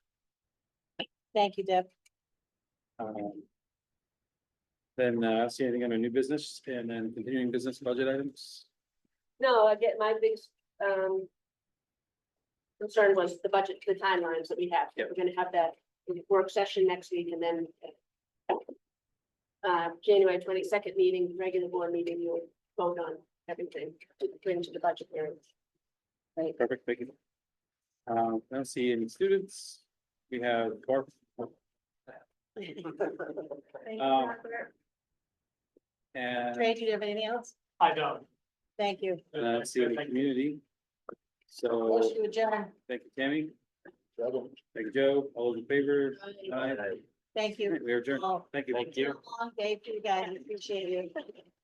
Thank you, Deb. Um, Then uh, see anything under new business and then continuing business budget items? No, I get my big, um. Concern was the budget, the timelines that we have. Yep. We're gonna have that work session next week and then. Uh, January twenty-second meeting, regular board meeting, you'll vote on everything to bring to the budget hearing. Perfect, thank you. Um, I don't see any students. We have Barb. Um, And Trey, do you have anything else? I don't. Thank you. uh, I don't see any community. So, Motion to adjourn. thank you, Tammy. Thank you, Joe. All those in favor? Aye. Thank you. We are adjourned. all. Thank you. Long day for you guys. Appreciate you.